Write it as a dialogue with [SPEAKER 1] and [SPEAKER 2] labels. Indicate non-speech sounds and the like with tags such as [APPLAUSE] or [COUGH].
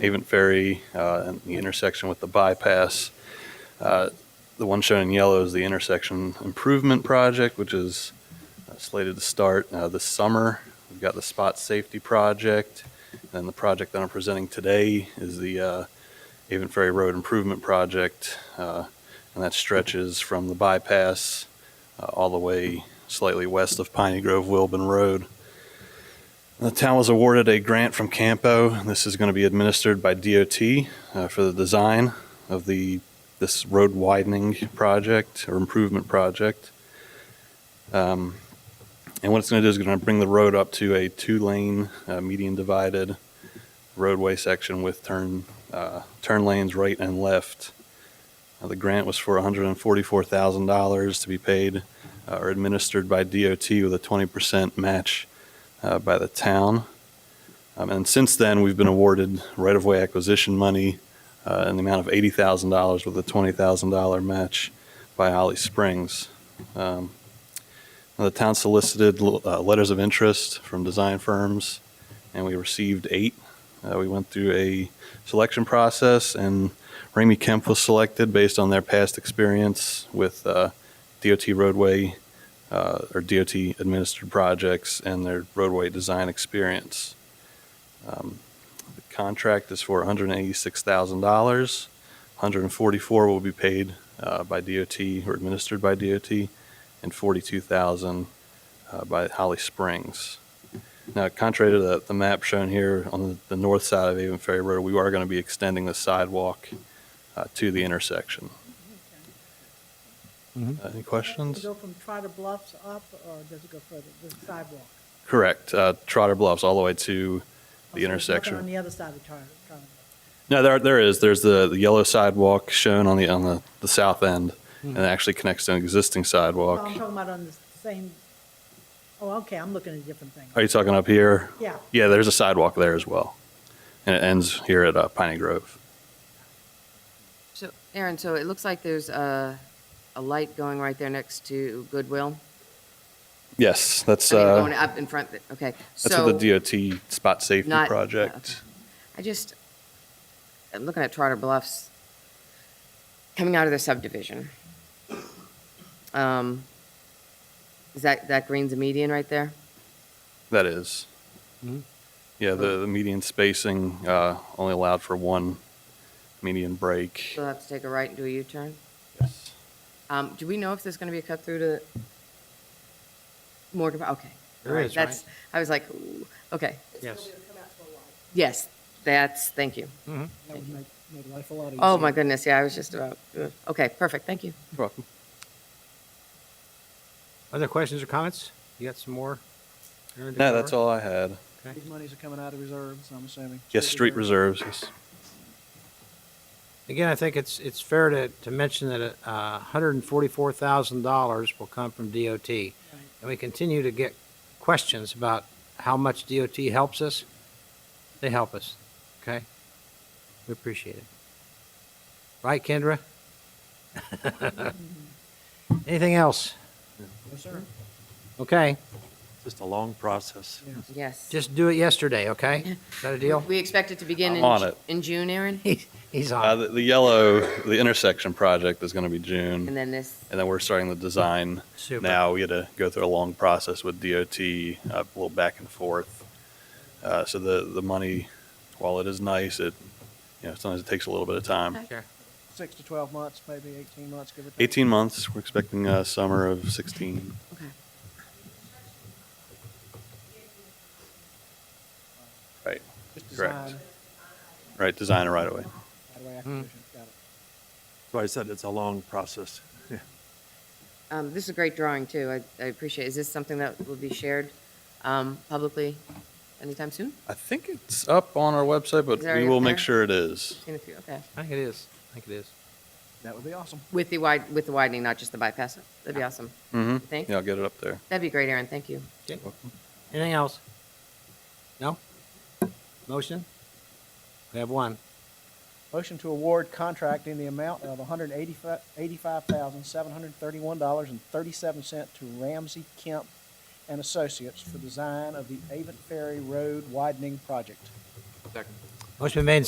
[SPEAKER 1] Haven Ferry, uh, and the intersection with the bypass. Uh, The one shown in yellow is the intersection improvement project, which is uh, slated to start uh, this summer. We've got the spot safety project, and the project that I'm presenting today is the uh, Haven Ferry Road Improvement Project, uh, and that stretches from the bypass uh, all the way slightly west of Piney Grove Wilburn Road. The town was awarded a grant from Campo. This is going to be administered by DOT uh, for the design of the this road widening project or improvement project. Um, and what it's going to do is going to bring the road up to a two-lane uh, median divided roadway section with turn uh, turn lanes right and left. Uh, the grant was for $144,000 to be paid uh, or administered by DOT with a 20% match uh, by the town. Um, and since then, we've been awarded right of way acquisition money uh, in the amount of $80,000 with a $20,000 match by Holly Springs. Um, now, the town solicited uh, letters of interest from design firms, and we received eight. Uh, we went through a selection process, and Ramey Kemp was selected based on their past experience with uh, DOT roadway uh, or DOT administered projects and their roadway design experience. Um, the contract is for $186,000. 144 will be paid uh, by DOT or administered by DOT, and 42,000 uh, by Holly Springs. Now, contrary to the, the map shown here on the, the north side of Avon Ferry Road, we are going to be extending the sidewalk uh, to the intersection. Uh, any questions?
[SPEAKER 2] Does it go from Trotter Bluffs up, or does it go further, the sidewalk?
[SPEAKER 1] Correct. Uh, Trotter Bluffs all the way to
[SPEAKER 2] Oh, so there's nothing
[SPEAKER 1] the
[SPEAKER 2] On
[SPEAKER 1] intersection.
[SPEAKER 2] the other side of Trotter, Trotter Bluffs.
[SPEAKER 1] No, there there is. There's the, the yellow sidewalk shown on the on the, the south end, and it actually connects to an existing
[SPEAKER 2] Oh, I'm
[SPEAKER 1] sidewalk.
[SPEAKER 2] talking about on the same, oh, okay, I'm looking at a different thing.
[SPEAKER 1] Are you talking up here?
[SPEAKER 2] Yeah.
[SPEAKER 1] Yeah, there's a sidewalk there as well, and it ends here at uh, Piney Grove.
[SPEAKER 3] So, Aaron, so it looks like there's a, a light going right there next to Goodwill.
[SPEAKER 1] Yes, that's
[SPEAKER 3] I mean,
[SPEAKER 1] uh,
[SPEAKER 3] going up in front, okay.
[SPEAKER 1] that's
[SPEAKER 3] So
[SPEAKER 1] with the DOT spot safety
[SPEAKER 3] Not-
[SPEAKER 1] project.
[SPEAKER 3] I just, I'm looking at Trotter Bluffs, coming out of the subdivision. Um, Is that, that green's a median right there?
[SPEAKER 1] That is. Yeah, the, the median spacing uh, only allowed for one median break.
[SPEAKER 3] So I'll have to take a right and do a U-turn?
[SPEAKER 1] Yes.
[SPEAKER 3] Um, Do we know if there's going to be a cut through to Morgan? Okay.
[SPEAKER 4] There
[SPEAKER 3] All right,
[SPEAKER 4] is, right?
[SPEAKER 3] That's, I was like, ooh, okay,
[SPEAKER 4] Yes.
[SPEAKER 3] yes, that's, thank you.
[SPEAKER 4] Mm-hmm.
[SPEAKER 2] That would make, make life a lot easier.
[SPEAKER 3] Oh, my goodness, yeah, I was just about, ugh. okay, perfect, thank you.
[SPEAKER 1] You're welcome.
[SPEAKER 4] Other questions or comments? You got some more? Aaron, to
[SPEAKER 1] No, that's
[SPEAKER 4] cover?
[SPEAKER 1] all I had.
[SPEAKER 4] Okay.
[SPEAKER 5] These monies are coming out of reserves, I'm assuming.
[SPEAKER 1] Yes, street reserves. Yes.
[SPEAKER 4] Again, I think it's, it's fair to, to mention that uh, $144,000 will come from DOT. And we continue to get questions about how much DOT helps us. They help us, okay? We appreciate it. Right, Kendra? [LAUGHS] Anything else?
[SPEAKER 5] Yes, sir.
[SPEAKER 4] Okay,
[SPEAKER 6] Just a long process.
[SPEAKER 3] Yes.
[SPEAKER 4] just do it yesterday, okay? Is that a deal?
[SPEAKER 3] We expect it to begin
[SPEAKER 1] I'm
[SPEAKER 3] in,
[SPEAKER 1] on
[SPEAKER 3] Ju-
[SPEAKER 1] it.
[SPEAKER 3] in June, Aaron?
[SPEAKER 4] He's- He's
[SPEAKER 1] Uh,
[SPEAKER 4] on.
[SPEAKER 1] the, the yellow, the intersection project is going to be June,
[SPEAKER 3] And then this,
[SPEAKER 1] and then we're starting the design
[SPEAKER 4] Super.
[SPEAKER 1] now. We had to go through a long process with DOT, uh, a little back and forth. Uh, so the the money, while it is nice, it you know sometimes it takes a little bit of time.
[SPEAKER 4] Sure.
[SPEAKER 5] Six to 12 months, maybe 18 months, give or take.
[SPEAKER 1] 18 months. We're expecting uh, summer of 16.
[SPEAKER 3] okay.
[SPEAKER 1] Right,
[SPEAKER 5] Just
[SPEAKER 1] correct.
[SPEAKER 5] design,
[SPEAKER 1] right. Design it right away.
[SPEAKER 5] right-of-way acquisition, got it.
[SPEAKER 6] So I said it's a long process.
[SPEAKER 3] Um, this is a great drawing, too, I, I appreciate, it. is this something that will be shared, um, publicly anytime soon?
[SPEAKER 1] I think it's up on our website, but
[SPEAKER 3] Is it already
[SPEAKER 1] we
[SPEAKER 3] up
[SPEAKER 1] will make
[SPEAKER 3] there?
[SPEAKER 1] sure it is.
[SPEAKER 3] In a few, okay.
[SPEAKER 4] I think it is. I think it is.
[SPEAKER 5] That would be awesome.
[SPEAKER 3] With the wide, with the widening, not just the bypass, that'd be awesome,
[SPEAKER 1] Mm-hmm.
[SPEAKER 3] I think.
[SPEAKER 1] Yeah, I'll get it up there.
[SPEAKER 3] That'd be great, Aaron, thank you.
[SPEAKER 4] Okay. Anything else? No? Motion? We have one.
[SPEAKER 5] Motion to award contract in the amount of $185,731.37 to Ramsey Kemp and Associates for design of the Avon Ferry Road widening project.
[SPEAKER 4] Motion been made and